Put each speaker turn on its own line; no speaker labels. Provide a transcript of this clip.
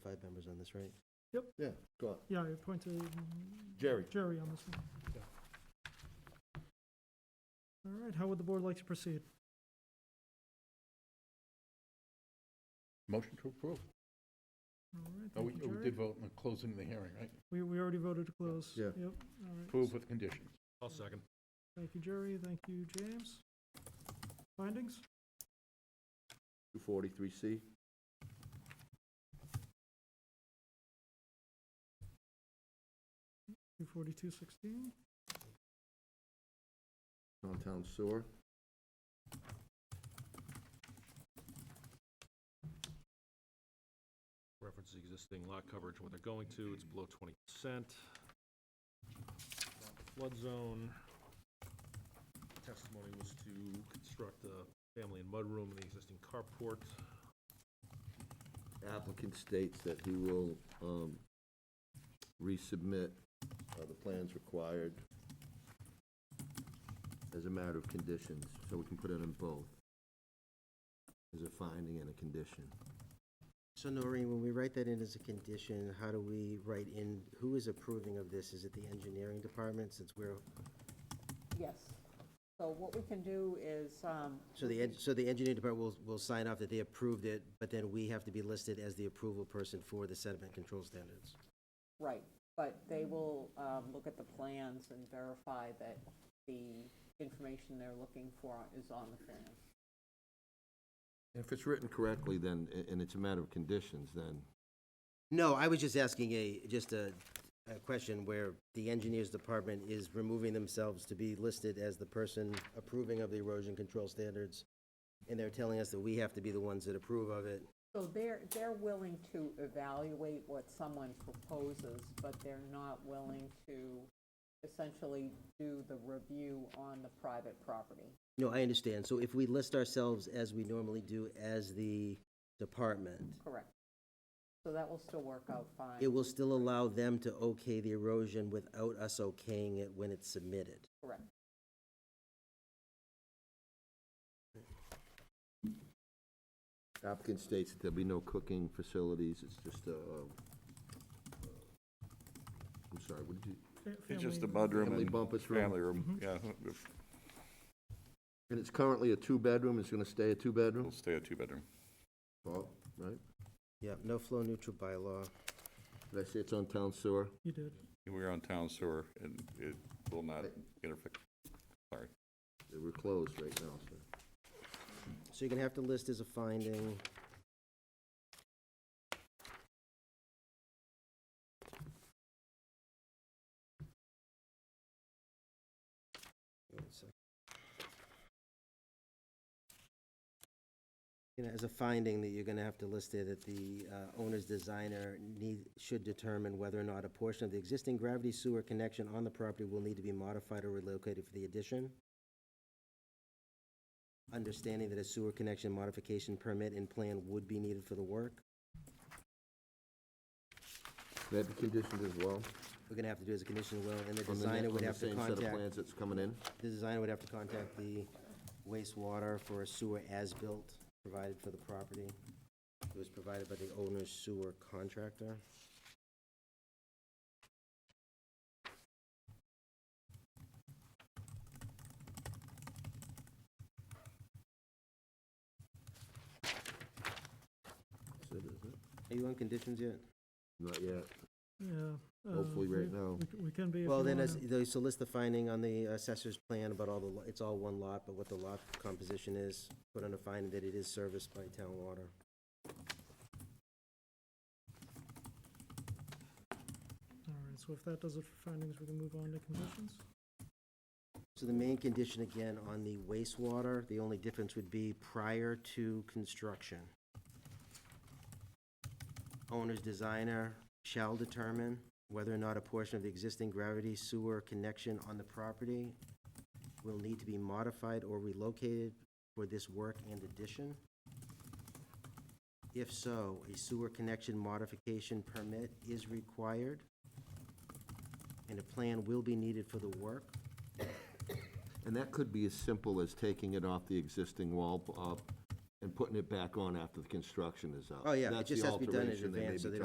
this, right?
Yeah, go on.
Yeah, I appointed
Jerry,
Jerry on this one. All right, how would the board like to proceed?
Motion to approve.
All right,
Oh, we
thank you,
oh, we
Jerry.
did vote on the closing of the hearing, right?
We, we already voted to close.
Yeah.
Yep, all right.
Approve with conditions.
I'll second.
Thank you, Jerry, thank you, James. Findings?
243C.
Two forty-two sixteen,
Downtown Sewer.
Reference the existing lot coverage, what they're going to, it's below twenty percent. Flood zone. Testimony was to construct a family and mudroom in the existing carport.
Applicant states that he will um, resubmit uh, the plans required as a matter of conditions, so we can put it in both. As a finding and a condition.
So Noreen, when we write that in as a condition, how do we write in, who is approving of this? Is it the engineering department, since we're,
Yes. So what we can do is, um,
so the, en- so the engineering department will, will sign off that they approved it, but then we have to be listed as the approval person for the sediment control standards?
right, but they will um, look at the plans and verify that the information they're looking for is on the plan.
If it's written correctly, then, a- and it's a matter of conditions, then
No, I was just asking a, just a, a question where the engineers department is removing themselves to be listed as the person approving of the erosion control standards, and they're telling us that we have to be the ones that approve of it.
So they're, they're willing to evaluate what someone proposes, but they're not willing to essentially do the review on the private property.
No, I understand. So if we list ourselves as we normally do as the department,
Correct. So that will still work out fine.
it will still allow them to okay the erosion without us okaying it when it's submitted.
Correct.
applicant states that there'll be no cooking facilities, it's just a, um, uh, I'm sorry, what did you?
fa-
It's just the
family-
mudroom
Family
and
bumpus room.
family room, yeah.
And it's currently a two-bedroom, it's gonna stay a two-bedroom?
It'll stay a two-bedroom.
Paul, right?
Yep, no flow neutral bylaw.
Did I say it's on town sewer?
You did,
We're on town sewer, and it will not interfere. Sorry.
We're closed right now, so.
So you're gonna have to list as a finding. Wait a sec. You know, as a finding that you're gonna have to list there that the uh, owner's designer need, should determine whether or not a portion of the existing gravity sewer connection on the property will need to be modified or relocated for the addition understanding that a sewer connection modification permit and plan would be needed for the work.
That'd be conditioned as well?
We're gonna have to do as a condition as well, and the
on the ne-
designer would have to
On the same set of
contact,
plans that's coming in?
the designer would have to contact the wastewater for a sewer as-built provided for the property. It was provided by the owner's sewer contractor.
So does it?
Are you on conditions yet?
Not yet.
yeah. uh,
Hopefully right
we-
now.
we c- We can be if you
Well, then,
wanna.
as, though, so list the finding on the assessor's plan about all the, lo- it's all one lot, but what the lot composition is, put on a finding that it is serviced by town water.
All right, so if that does it for findings, we can move on to conditions.
So the main condition again on the wastewater, the only difference would be prior to construction. Owner's designer shall determine whether or not a portion of the existing gravity sewer connection on the property will need to be modified or relocated for this work and addition. If so, a sewer connection modification permit is required, and a plan will be needed for the work.
And that could be as simple as taking it off the existing wall uh, and putting it back on after the construction is out.
Oh, yeah, it
That's
just
the
has to be done in
alteration may
advance, so
be
they